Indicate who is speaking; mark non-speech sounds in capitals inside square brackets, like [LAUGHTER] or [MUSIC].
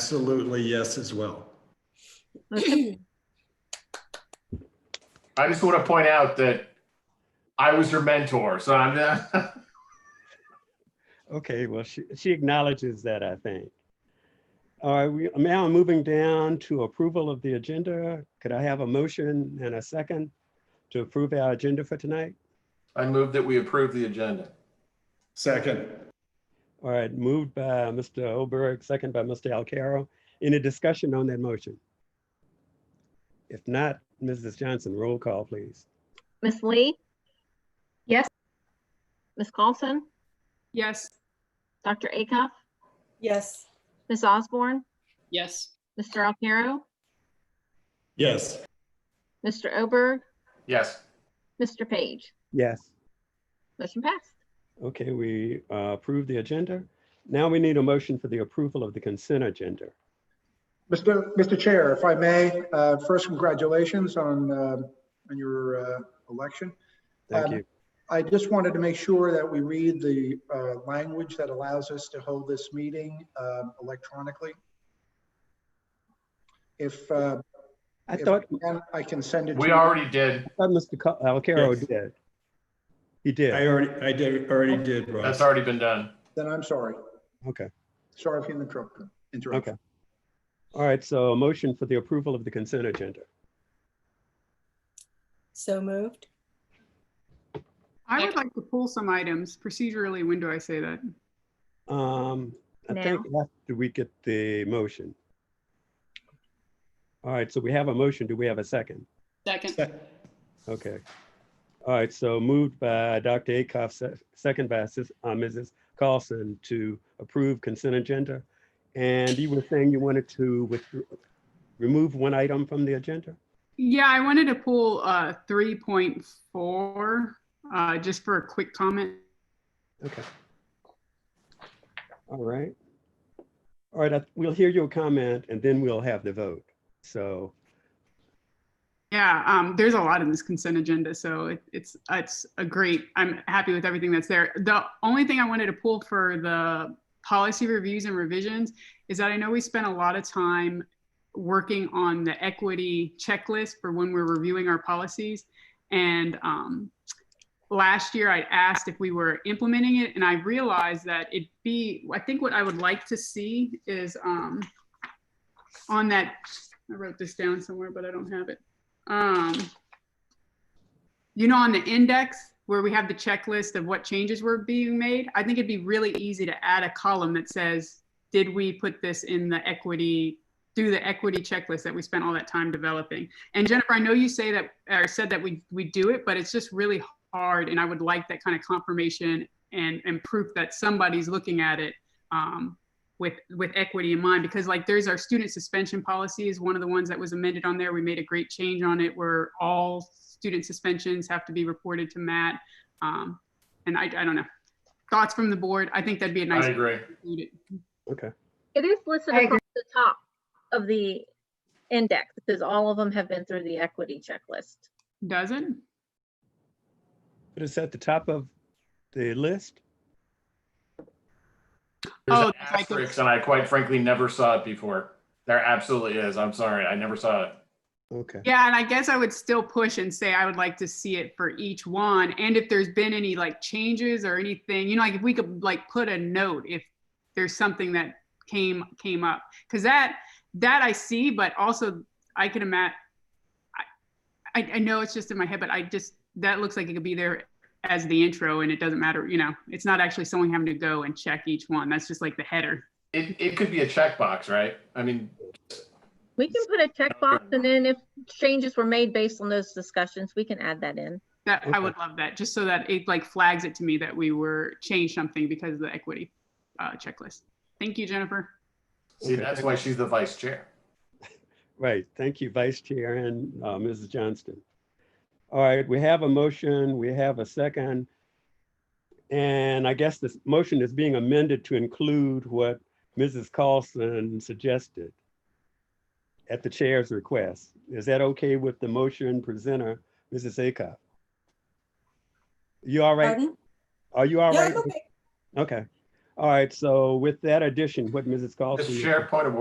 Speaker 1: Absolutely, yes as well.
Speaker 2: I just want to point out that I was her mentor, so I'm not.
Speaker 3: Okay, well, she, she acknowledges that, I think. All right, we, now I'm moving down to approval of the agenda. Could I have a motion and a second to approve our agenda for tonight?
Speaker 2: [LAUGHS] I move that we approve the agenda.
Speaker 1: Second,
Speaker 3: All right, moved by Mr. Oberg, second by Mr. Alcarro. Any discussion on that motion? If not, Mrs. Johnson, roll call, please.
Speaker 4: Miss Lee?
Speaker 5: Yes.
Speaker 4: Miss Carlson?
Speaker 5: Yes.
Speaker 4: Dr. Acuff?
Speaker 6: Yes.
Speaker 4: Miss Osborne?
Speaker 5: Yes.
Speaker 4: Mr. Alcarro?
Speaker 1: yes.
Speaker 4: Mr. Oberg?
Speaker 2: Yes,
Speaker 4: Mr. Page?
Speaker 3: Yes.
Speaker 4: Motion passed.
Speaker 3: Okay, we uh, approve the agenda. Now we need a motion for the approval of the consent agenda.
Speaker 7: Mr. Mr. Chair, if I may, uh, first, congratulations on, uh, on your uh, election.
Speaker 3: Thank
Speaker 7: Um,
Speaker 3: you.
Speaker 7: I just wanted to make sure that we read the uh, language that allows us to hold this meeting um, electronically. If, uh,
Speaker 3: I
Speaker 7: if
Speaker 3: thought,
Speaker 7: and I can send it to
Speaker 2: we
Speaker 7: you.
Speaker 2: already did.
Speaker 3: I thought Mr. Ca- Alcarro
Speaker 1: Yes.
Speaker 3: did. He did.
Speaker 1: I already, I did, already did, Ross.
Speaker 2: That's already been done.
Speaker 7: Then I'm sorry.
Speaker 3: Okay,
Speaker 7: Sorry if you interrupted. interrupted.
Speaker 3: okay. All right, so a motion for the approval of the consent agenda.
Speaker 6: So moved.
Speaker 5: I would like to pull some items procedurally. When do I say that?
Speaker 3: Um, I think after we get the motion. All right, so we have a motion. Do we have a second?
Speaker 5: Second.
Speaker 3: Okay. All right, so moved by Dr. Akoff, se- second by Sis- uh, Mrs. Carlson to approve consent agenda. And you were saying you wanted to with, remove one item from the agenda?
Speaker 5: Yeah, I wanted to pull uh, 3.4 uh, just for a quick comment.
Speaker 3: Okay. All right. All right, I- we'll hear your comment and then we'll have the vote. So,
Speaker 5: Yeah, um, there's a lot in this consent agenda, so it, it's it's a great. I'm happy with everything that's there. The only thing I wanted to pull for the policy reviews and revisions is that I know we spent a lot of time working on the equity checklist for when we're reviewing our policies, and um, last year I asked if we were implementing it, and I realized that it be. I think what I would like to see is um, on that. I wrote this down somewhere, but I don't have it um, you know, on the index where we have the checklist of what changes were being made, I think it'd be really easy to add a column that says, did we put this in the equity, through the equity checklist that we spent all that time developing? And Jennifer, I know you say that, or said that we, we do it, but it's just really hard. And I would like that kind of confirmation and, and proof that somebody's looking at it um, with with equity in mind because like there's our student suspension policy is one of the ones that was amended on there we made a great change on it where all student suspensions have to be reported to matt um, and I, I don't know thoughts from the board i think that'd be a nice
Speaker 2: I agree.
Speaker 5: include it.
Speaker 3: okay,
Speaker 4: It is listed
Speaker 5: I agree.
Speaker 4: across the top of the index because all of them have been through the equity checklist.
Speaker 5: does it
Speaker 3: but it's at the top of the list.
Speaker 2: There's
Speaker 5: Oh,
Speaker 2: an
Speaker 5: it's like it's-
Speaker 2: asterisk, and I quite frankly never saw it before. There absolutely is. I'm sorry. I never saw it.
Speaker 3: Okay,
Speaker 5: Yeah, and I guess I would still push and say I would like to see it for each one. And if there's been any like changes or anything, you know, like if we could like put a note if there's something that came came up. Cause that that I see, but also I can imagine I, I know it's just in my head, but I just that looks like it could be there as the intro and it doesn't matter, you know, it's not actually someone having to go and check each one. That's just like the header.
Speaker 2: It, it could be a checkbox, right? I mean,
Speaker 4: We can put a checkbox and then if changes were made based on those discussions, we can add that in.
Speaker 5: That I
Speaker 3: Okay.
Speaker 5: would love that, just so that it like flags it to me that we were changed something because of the equity uh, checklist. Thank you, Jennifer.
Speaker 2: see,
Speaker 3: Okay.
Speaker 2: that's why she's the vice chair.
Speaker 3: right. Thank you, Vice Chair and uh, Mrs. Johnston. All right, we have a motion, we have a second. And I guess this motion is being amended to include what Mrs. Carlson suggested at the chair's request. Is that okay with the motion presenter, Mrs. Acuff? You all right?
Speaker 6: Pardon?
Speaker 3: Are you all
Speaker 6: Yeah,
Speaker 3: right?
Speaker 6: I'm okay.
Speaker 3: Okay. All right, so with that addition, what Mrs. Carlson?
Speaker 2: Mr. Chair, point of